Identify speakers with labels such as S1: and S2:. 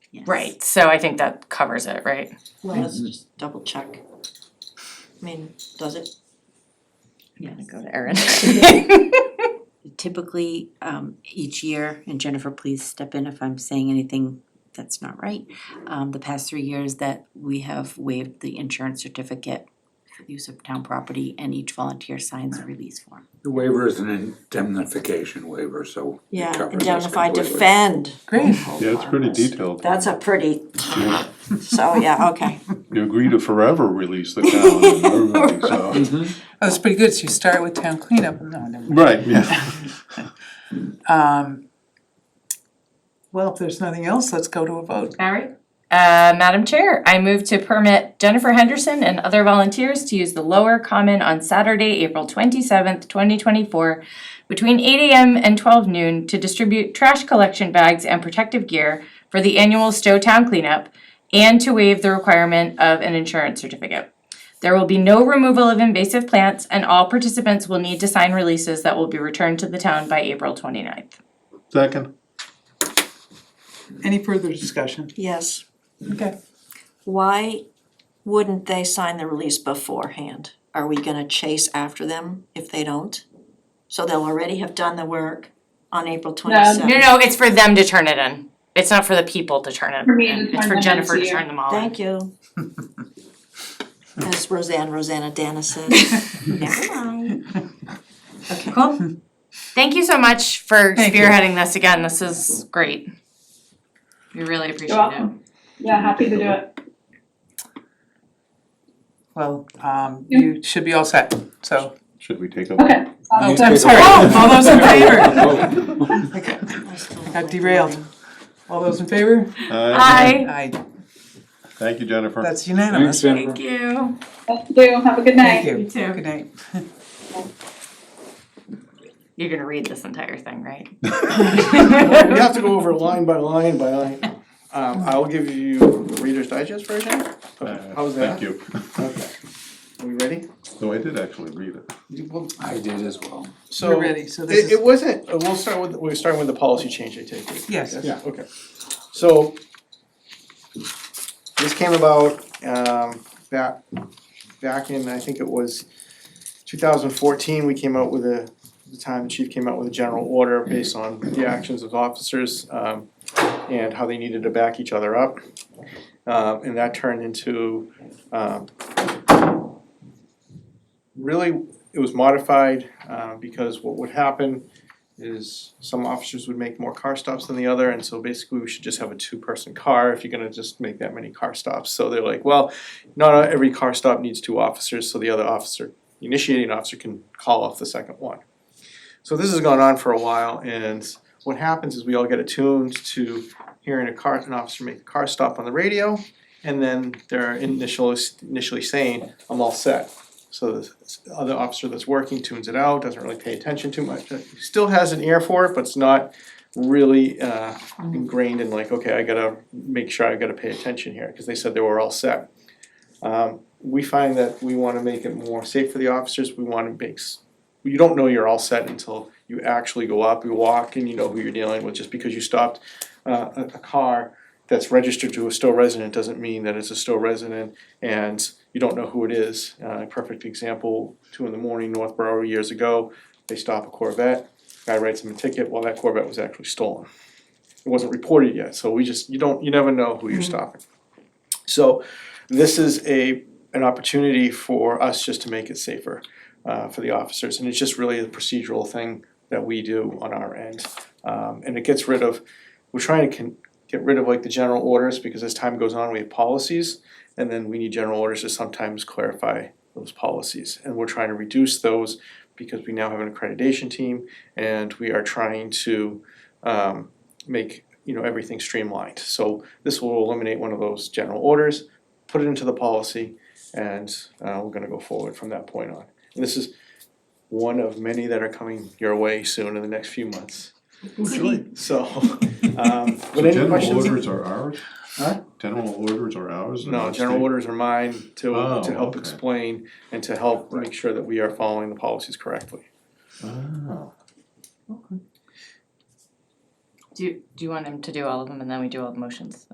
S1: yes.
S2: Right, so I think that covers it, right?
S3: Well,
S4: Mm-hmm.
S3: let's just double check. I mean, does it?
S1: Yes.
S5: Go to Erin.
S1: Typically, um, each year, and Jennifer, please step in if I'm saying anything that's not right. Um, the past three years that we have waived the insurance certificate for the use of town property and each volunteer signs a release form.
S6: The waiver is an indemnification waiver, so it
S3: Yeah,
S6: covers us
S3: indemnify,
S6: completely.
S3: defend.
S2: Great.
S3: Oh,
S4: Yeah, it's pretty detailed.
S3: That's a pretty, so yeah, okay.
S4: You agree to forever release the town and everything, so. Mm-hmm.
S7: Oh, that's pretty good, so you start with town cleanup, no, never mind.
S4: Right, yeah.
S7: Um, Well, if there's nothing else, let's go to a vote.
S2: Alright. Uh, Madam Chair, I move to permit Jennifer Henderson and other volunteers to use the lower common on Saturday, April twenty-seventh, twenty twenty-four between eight AM and twelve noon to distribute trash collection bags and protective gear for the annual Stowe Town cleanup and to waive the requirement of an insurance certificate. There will be no removal of invasive plants and all participants will need to sign releases that will be returned to the town by April 29th.
S4: Second,
S7: Any further discussion?
S3: Yes.
S7: Okay.
S3: Why wouldn't they sign the release beforehand? Are we gonna chase after them if they don't? So they'll already have done the work on April twenty-seventh.
S2: No, no, it's for them to turn it in. It's not for the people to turn it
S1: For me to
S2: in. It's
S1: turn
S2: for
S1: them
S2: Jennifer to
S1: into you.
S2: turn them all in.
S3: Thank you. As Roseanne, Rosanna Dana says, never mind.
S2: Cool. Thank you so much for
S7: Thank you.
S2: spearheading this again. This is great. We really appreciate it.
S1: welcome. Yeah, happy to do it.
S7: Well, um, you should be all set, so.
S4: should we take a?
S1: Okay.
S7: Oh,
S6: take
S7: I'm
S6: a
S7: sorry,
S6: vote.
S7: all those in favor,
S3: I still
S7: got
S3: like
S7: derailed.
S3: moving.
S7: all those in favor?
S4: Aye.
S2: Hi.
S7: Aye,
S4: Uh, Thank you, Jennifer.
S7: that's
S6: Thanks,
S7: unanimous.
S6: Jennifer.
S2: Thank you.
S1: Thank you, have a good night.
S7: Thank you.
S2: You too.
S7: Good night.
S2: You're gonna read this entire thing, right?
S8: We have to go over line by line by line. Um, I'll give you Reader's Digest version.
S4: Uh,
S8: How's that?
S4: Thank you.
S8: Okay. Are we ready?
S4: No, I did actually read it.
S6: I did as well.
S8: So.
S7: We're ready, so this
S8: It,
S7: is,
S8: it wasn't, uh, we'll start with, we're starting with the policy change, I take it?
S7: Yes.
S8: Yeah, okay. So this came about, um, back, back in, I think it was two thousand fourteen, we came out with a, the time the chief came out with a general order based on the actions of officers, um, and how they needed to back each other up. Um, and that turned into, um, really, it was modified, uh, because what would happen is some officers would make more car stops than the other, and so basically we should just have a two-person car if you're gonna just make that many car stops. So they're like, well, not every car stop needs two officers, so the other officer, the initiating officer can call off the second one. So this has gone on for a while, and what happens is we all get attuned to hearing a car, an officer make a car stop on the radio, and then they're initially, initially saying, I'm all set. So the other officer that's working tunes it out, doesn't really pay attention too much, uh, still has an ear for it, but it's not really uh ingrained in like, okay, I gotta make sure I gotta pay attention here, cause they said they were all set. Um we find that we wanna make it more safe for the officers, we wanna make, s- you don't know you're all set until you actually go up, you walk and you know who you're dealing with, just because you stopped uh a a car that's registered to a Stowe resident doesn't mean that it's a Stowe resident and you don't know who it is. Uh, a perfect example, two in the morning, Northborough years ago, they stop a Corvette, guy writes him a ticket, well, that Corvette was actually stolen. It wasn't reported yet, so we just, you don't, you never know who you're stopping. So this is a, an opportunity for us just to make it safer uh, for the officers, and it's just really a procedural thing that we do on our end. Um, and it gets rid of, we're trying to con- get rid of like the general orders, because as time goes on, we have policies, and then we need general orders to sometimes clarify those policies. And we're trying to reduce those because we now have an accreditation team and we are trying to um make, you know, everything streamlined. So this will eliminate one of those general orders, put it into the policy, and uh we're gonna go forward from that point on. And this is one of many that are coming your way soon in the next few months. So, um,
S4: So
S8: but any
S4: general
S8: questions?
S4: orders are ours?
S8: Huh?
S4: General orders are ours? and
S8: No,
S4: not
S8: general
S4: state?
S8: orders are mine to,
S4: Oh,
S8: to help
S4: okay.
S8: explain and to help make sure that we are following the policies correctly.
S4: Oh,
S2: Do, do you want him to do all of them and then we do all the motions?